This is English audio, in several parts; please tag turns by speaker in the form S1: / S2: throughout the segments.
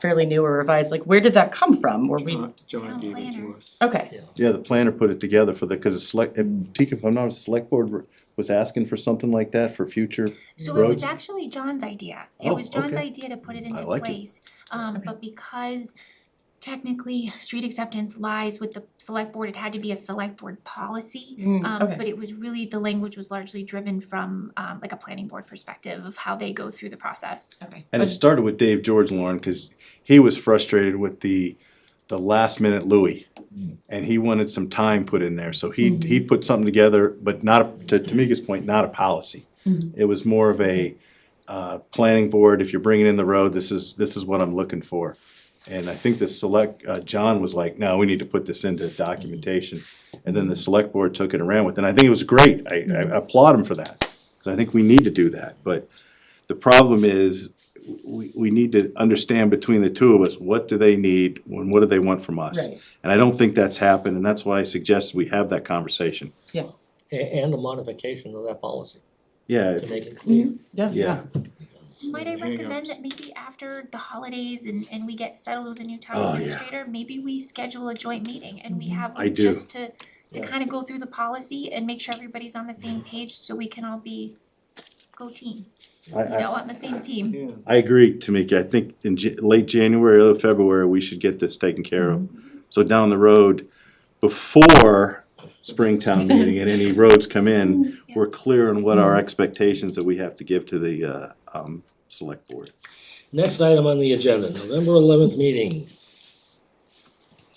S1: fairly new or revised, like where did that come from? Or we,
S2: John- John
S3: Town
S2: gave it to
S3: planner.
S2: us.
S1: okay,
S4: Yeah, the planner put it together for the, cause it's select, if, Tika, if I'm not, the select board were- was asking for something like that for future
S3: So it was
S4: roads.
S3: actually John's idea. It
S4: Oh,
S3: was John's
S4: okay.
S3: idea to put it into
S4: like it.
S3: place. Um, but because technically, street acceptance lies with the select board, it had to be a select board policy.
S1: Mm,
S3: Um,
S1: okay.
S3: but it was really, the language was largely driven from um like a planning board perspective of how they go through the process.
S1: okay.
S4: And it started with Dave George, Lauren, cause he was frustrated with the, the last minute Louis. And he wanted some time put in there, so he, he put something together, but not, a- to Tamika's point, not a policy. It was more of a, uh, planning board, if you're bringing in the road, this is, this is what I'm looking for. And I think the select, uh, John was like, no, we need to put this into documentation. And then the select board took it and ran with it. And I think it was great. I,
S1: Mm-hmm.
S4: I applaud him for that. Cause I think we need to do that. But the problem is, we, we need to understand between the two of us, what do they need and what do they want from us?
S1: Right.
S4: And I don't think that's happened, and that's why I suggest we have that conversation.
S1: Yeah,
S5: A- And a modification of that policy
S4: Yeah,
S5: to
S4: if-
S5: make it clear.
S1: yeah.
S4: yeah,
S3: Might I
S2: Any hang-ups?
S3: recommend that maybe after the holidays and and we get settled with a new
S4: Oh, yeah. Mm-hmm.
S3: town administrator, maybe we schedule a joint meeting and we have
S4: I
S3: one
S4: do.
S3: just to to
S5: Yeah.
S3: kind of go through the policy and make sure everybody's on the
S4: Mm-hmm.
S3: same page so we can all be go team,
S4: I,
S3: you
S4: I,
S3: know, on the same team.
S2: Yeah,
S4: I agree, Tamika. I think in Ja- late January, early February, we should get this taken care of. So down the road, before Springtown meeting and any roads come in, we're clear on what our expectations that we have to give to the, uh, um, select board.
S5: Next item on the agenda, November eleventh meeting.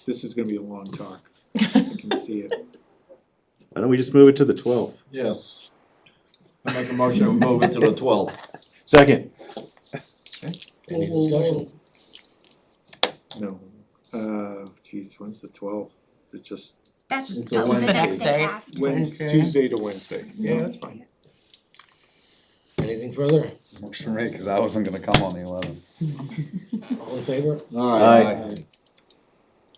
S2: this is gonna be a long talk, I can see it.
S4: Why don't we just move it to the twelfth?
S6: Yes. I make a motion to move it to the twelfth.
S4: Second.
S5: Any discussion?
S2: No, uh, geez, when's the twelfth? Is it just
S3: That's
S2: It's
S3: that was the
S2: Wednesday.
S3: next day
S1: Wednesday.
S2: Wednesday,
S3: after.
S1: Wednesday.
S2: Tuesday to Wednesday? Yeah, that's fine.
S5: Anything further?
S6: Works for me, cause I wasn't gonna come on the eleventh.
S5: All in favor?
S4: Aye.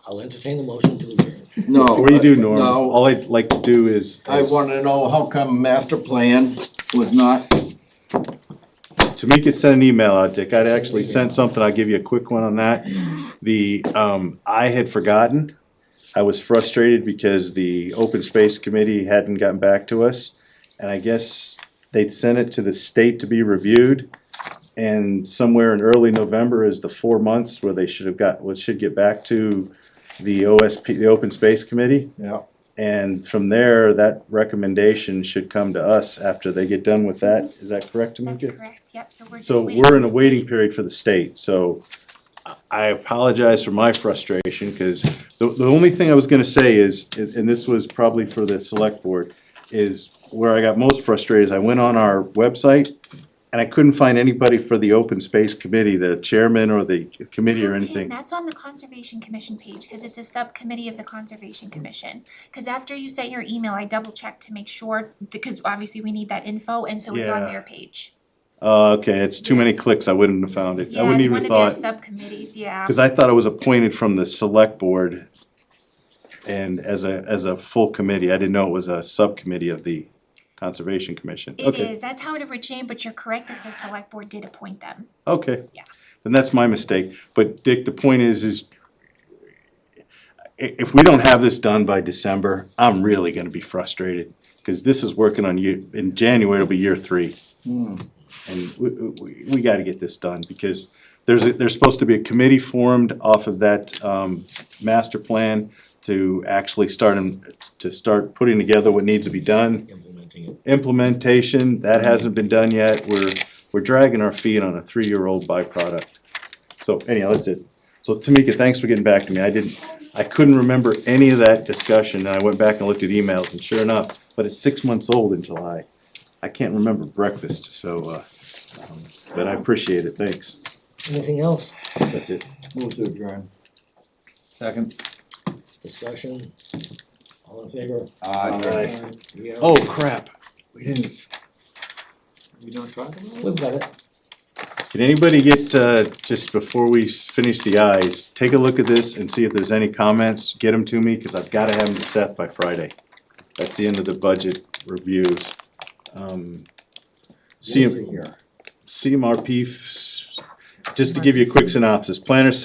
S5: I'll entertain the motion to adjourn.
S6: No.
S4: Before you do, Norm,
S6: Oh, No.
S4: all I'd like to do is.
S6: I wanna know how come master plan was not,
S4: Tamika sent an email out, Dick. I'd actually sent something. I'll give you a quick one on that. The, um, I had forgotten. I was frustrated because the Open Space Committee hadn't gotten back to us. And I guess they'd sent it to the state to be reviewed. And somewhere in early November is the four months where they should have got, what should get back to the OSP, the Open Space Committee.
S6: yeah,
S4: And from there, that recommendation should come to us after they get done with that. Is that correct, Tamika?
S3: That's correct, yep, so we're just
S4: So
S3: waiting
S4: we're
S3: for
S4: in a
S3: the
S4: waiting
S3: state.
S4: period for the state, so I- I apologize for my frustration, because the, the only thing I was gonna say is, and and this was probably for the select board, is where I got most frustrated is I went on our website and I couldn't find anybody for the open space committee, the chairman or the committee
S3: So
S4: or
S3: Tim,
S4: anything.
S3: that's on the Conservation Commission page, cause it's a subcommittee of the Conservation Commission. Cause after you sent your email, I double checked to make sure, because obviously we need that info, and so it's on
S4: Yeah.
S3: their page.
S4: Uh, okay, it's too many clicks, I wouldn't have found it, I
S3: Yeah,
S4: wouldn't
S3: it's
S4: even
S3: one
S4: have
S3: of their
S4: thought.
S3: subcommittees, yeah.
S4: Cause I thought I was appointed from the select board and as a, as a full committee, I didn't know it was a subcommittee of the Conservation Commission.
S3: It
S4: Okay,
S3: is, that's how it originated, but you're correct that the select board did appoint them.
S4: okay.
S3: Yeah.
S4: Then that's my mistake, but Dick, the point is, is i- if we don't have this done by December, I'm really gonna be frustrated, cause this is working on you, in January it'll be year three. And we, we, we gotta get this done, because there's, a- there's supposed to be a committee formed off of that, um, master plan to actually start and, to start putting together what needs to be done.
S5: Implementing it.
S4: Implementation, that hasn't been done yet, we're, we're dragging our feet on a three-year-old byproduct. So anyhow, that's it. So Tamika, thanks for getting back to me, I didn't, I couldn't remember any of that discussion, and I went back and looked at emails, and sure enough, but it's six months old in July. I can't remember breakfast, so, uh, um, but I appreciate it, thanks,
S5: Anything else?
S4: that's it.
S6: move to adjourn. Second.
S5: Discussion? All in favor?
S6: Aye.
S4: Aye.
S2: We have-
S4: Oh crap,
S6: We didn't.
S2: We not talking about it?
S5: We've got it.
S4: Can anybody get, uh, just before we s- finish the eyes, take a look at this and see if there's any comments, get them to me, cause I've gotta have them to Seth by Friday. That's the end of the budget reviews. Um, CM,
S5: Over here.
S4: CMRP f- just to give you a quick synopsis, planner site